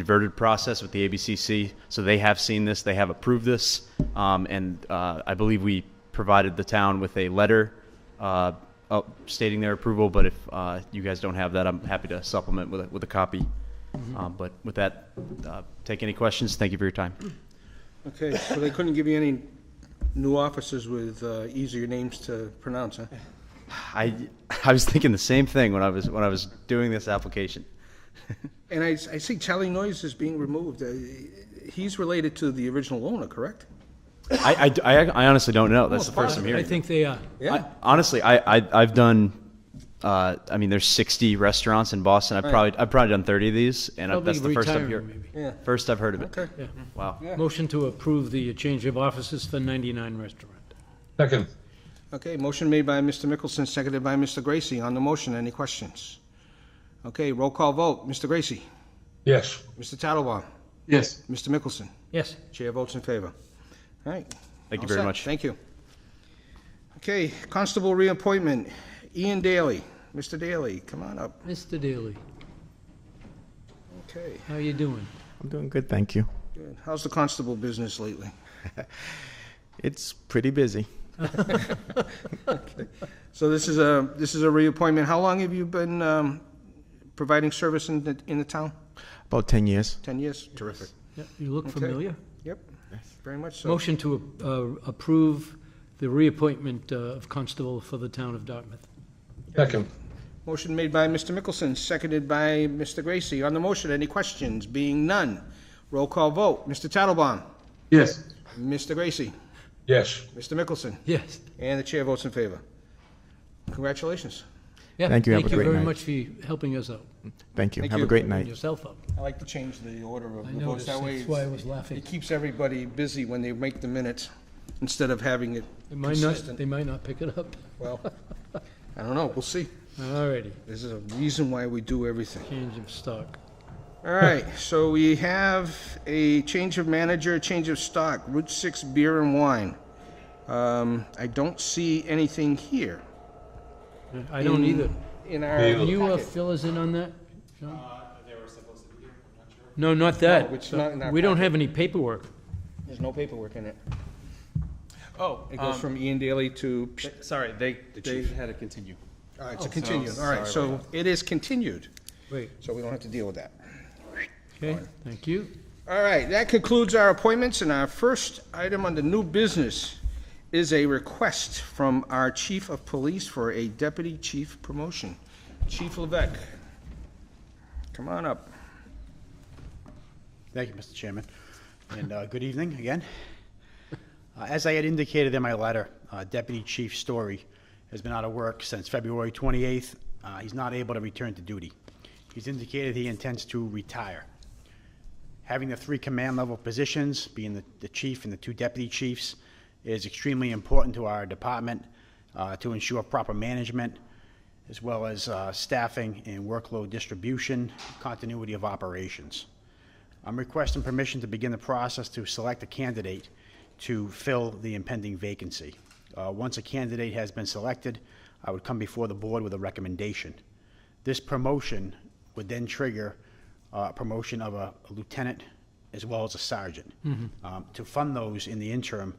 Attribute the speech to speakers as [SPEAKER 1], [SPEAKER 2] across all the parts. [SPEAKER 1] inverted process with the ABCC, so they have seen this, they have approved this, um, and uh, I believe we provided the town with a letter uh, uh, stating their approval, but if uh, you guys don't have that, I'm happy to supplement with a, with a copy.
[SPEAKER 2] Mm-hmm.
[SPEAKER 1] Um, But with that, uh, take any questions, thank you for your time.
[SPEAKER 3] Okay, so they couldn't give you any new officers with uh, easier names to pronounce, huh?
[SPEAKER 1] I, I was thinking the same thing when I was, when I was doing this application.
[SPEAKER 3] And I, I see Charlie Noyes is being removed. Uh, He's related to the original owner, correct?
[SPEAKER 1] I, I, I honestly don't know, that's the first I'm
[SPEAKER 2] Oh, I
[SPEAKER 1] hearing.
[SPEAKER 2] think they are.
[SPEAKER 1] I- Honestly, I, I I've done. Uh, I mean, there's 60 restaurants in Boston. I've probably I've probably done 30 of these, and I,
[SPEAKER 2] Probably
[SPEAKER 1] that's the first I've
[SPEAKER 2] retiring,
[SPEAKER 1] heard.
[SPEAKER 2] maybe.
[SPEAKER 3] Yeah,
[SPEAKER 1] First I've heard of it.
[SPEAKER 3] okay.
[SPEAKER 2] Yeah.
[SPEAKER 1] Wow.
[SPEAKER 2] Motion to approve the change of offices for 99 Restaurant.
[SPEAKER 4] Second.
[SPEAKER 3] Okay, motion made by Mr. Mickelson, seconded by Mr. Gracie. On the motion, any questions? Okay, roll call vote. Mr. Gracie?
[SPEAKER 4] Yes.
[SPEAKER 3] Mr. Tattelbaum?
[SPEAKER 4] Yes.
[SPEAKER 3] Mr. Mickelson?
[SPEAKER 2] Yes,
[SPEAKER 3] Chair votes in favor. All right.
[SPEAKER 1] Thank you
[SPEAKER 3] All
[SPEAKER 1] very
[SPEAKER 3] set.
[SPEAKER 1] much.
[SPEAKER 3] Thank you. Okay, constable reappointment. Ian Daly. Mr. Daly, come on up.
[SPEAKER 2] Mr. Daly,
[SPEAKER 3] Okay,
[SPEAKER 2] how you doing?
[SPEAKER 5] I'm doing good, thank you.
[SPEAKER 3] good. How's the constable business lately?
[SPEAKER 5] It's pretty busy.
[SPEAKER 3] So this is a, this is a reappointment. How long have you been um, providing service in the, in the town?
[SPEAKER 5] About 10 years.
[SPEAKER 3] 10 years? Terrific.
[SPEAKER 2] Yeah, You look familiar.
[SPEAKER 3] Yep, very much so.
[SPEAKER 2] Motion to uh, approve the reappointment uh, of constable for the town of Dartmouth.
[SPEAKER 4] Second.
[SPEAKER 3] Motion made by Mr. Mickelson, seconded by Mr. Gracie. On the motion, any questions? Being none, roll call vote. Mr. Tattelbaum?
[SPEAKER 4] Yes.
[SPEAKER 3] Mr. Gracie?
[SPEAKER 4] Yes.
[SPEAKER 3] Mr. Mickelson?
[SPEAKER 2] Yes.
[SPEAKER 3] And the chair votes in favor. Congratulations.
[SPEAKER 2] Yeah,
[SPEAKER 5] Thank you, have
[SPEAKER 2] Thank
[SPEAKER 5] a
[SPEAKER 2] you
[SPEAKER 5] great
[SPEAKER 2] very
[SPEAKER 5] night.
[SPEAKER 2] much for helping us out.
[SPEAKER 5] Thank you.
[SPEAKER 3] Thank
[SPEAKER 5] Have
[SPEAKER 3] you.
[SPEAKER 5] a great
[SPEAKER 2] and
[SPEAKER 5] night.
[SPEAKER 2] yourself up.
[SPEAKER 3] I like to change the order of the
[SPEAKER 2] I
[SPEAKER 3] votes.
[SPEAKER 2] noticed,
[SPEAKER 3] That way,
[SPEAKER 2] that's why I was laughing.
[SPEAKER 3] it keeps everybody busy when they make the minutes, instead of having it
[SPEAKER 2] They might not,
[SPEAKER 3] consistent.
[SPEAKER 2] they might not pick it up.
[SPEAKER 3] Well, I don't know, we'll see.
[SPEAKER 2] All righty,
[SPEAKER 3] There's a reason why we do everything.
[SPEAKER 2] change of stock.
[SPEAKER 3] All right, so we have a change of manager, change of stock, Route 6 Beer and Wine. Um, I don't see anything here.
[SPEAKER 2] I don't either.
[SPEAKER 3] In our
[SPEAKER 4] Me
[SPEAKER 2] Can you uh,
[SPEAKER 3] packet.
[SPEAKER 2] fill us in on that? Sean? No, not that.
[SPEAKER 3] No, it's not in our
[SPEAKER 2] We don't
[SPEAKER 3] packet.
[SPEAKER 2] have any paperwork.
[SPEAKER 3] There's no paperwork in it.
[SPEAKER 6] Oh,
[SPEAKER 3] It
[SPEAKER 2] Um,
[SPEAKER 3] goes from Ian Daly to,
[SPEAKER 6] sorry, they, they had to continue.
[SPEAKER 3] all
[SPEAKER 2] Oh,
[SPEAKER 3] right, it's a continued. All right, so it is continued,
[SPEAKER 2] Wait,
[SPEAKER 3] so we don't have to deal with that.
[SPEAKER 2] okay, thank you.
[SPEAKER 3] All right, that concludes our appointments, and our first item under new business is a request from our chief of police for a deputy chief promotion. Chief Levesque, come on up.
[SPEAKER 6] Thank you, Mr. Chairman, and uh, good evening again. Uh, As I had indicated in my letter, uh, Deputy Chief Story has been out of work since February 28th. Uh, He's not able to return to duty. He's indicated he intends to retire. Having the three command-level positions, being the- the chief and the two deputy chiefs, is extremely important to our department uh, to ensure proper management, as well as uh, staffing and workload distribution, continuity of operations. I'm requesting permission to begin the process to select a candidate to fill the impending vacancy. Uh, Once a candidate has been selected, I would come before the board with a recommendation. This promotion would then trigger uh, promotion of a lieutenant as well as a sergeant.
[SPEAKER 2] Mm-hmm.
[SPEAKER 6] Um, To fund those in the interim,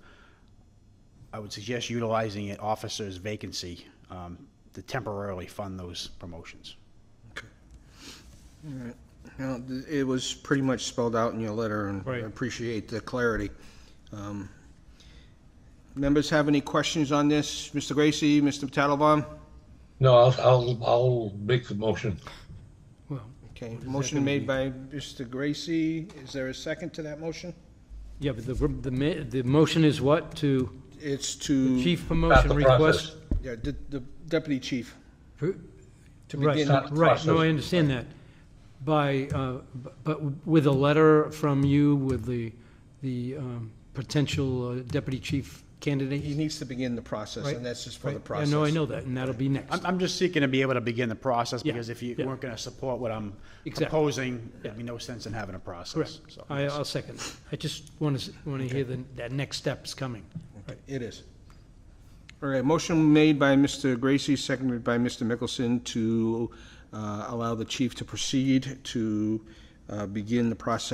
[SPEAKER 6] I would suggest utilizing an officer's vacancy um, to temporarily fund those promotions.
[SPEAKER 3] Now, th- it was pretty much spelled out in your letter, and I
[SPEAKER 2] Right.
[SPEAKER 3] appreciate the clarity. Um, Members have any questions on this? Mr. Gracie, Mr. Tattelbaum?
[SPEAKER 4] No, I'll, I'll, I'll make the motion.
[SPEAKER 2] Well,
[SPEAKER 3] Okay, motion made by Mr. Gracie. Is there a second to that motion?
[SPEAKER 2] yeah, but the, the, ma- the motion is what, to
[SPEAKER 3] It's to.
[SPEAKER 2] chief
[SPEAKER 4] Start
[SPEAKER 2] promotion
[SPEAKER 4] the
[SPEAKER 2] request?
[SPEAKER 4] process.
[SPEAKER 3] Yeah, the, the deputy chief.
[SPEAKER 2] To
[SPEAKER 3] begin
[SPEAKER 2] Right,
[SPEAKER 3] the
[SPEAKER 2] right, no,
[SPEAKER 4] process.
[SPEAKER 2] I understand that. By, uh, b- but with a letter from you with the, the um, potential uh, deputy chief
[SPEAKER 3] He
[SPEAKER 2] candidate?
[SPEAKER 3] needs to begin the process,
[SPEAKER 2] Right,
[SPEAKER 3] and that's just for the
[SPEAKER 2] I
[SPEAKER 3] process.
[SPEAKER 2] know, I know that, and that'll be next.
[SPEAKER 6] I'm, I'm just seeking to be able to begin the process,
[SPEAKER 2] Yeah,
[SPEAKER 6] because if you
[SPEAKER 2] yeah.
[SPEAKER 6] weren't gonna support what I'm
[SPEAKER 2] Exactly.
[SPEAKER 6] proposing,
[SPEAKER 2] Yeah.
[SPEAKER 6] there'd be no sense in having a process.
[SPEAKER 2] Correct.
[SPEAKER 6] So,
[SPEAKER 2] I, I'll second. I just want to, want to hear the, that next step's coming.
[SPEAKER 3] It is. All right, motion made by Mr. Gracie, seconded by Mr. Mickelson to uh, allow the chief to proceed to uh, uh, begin the process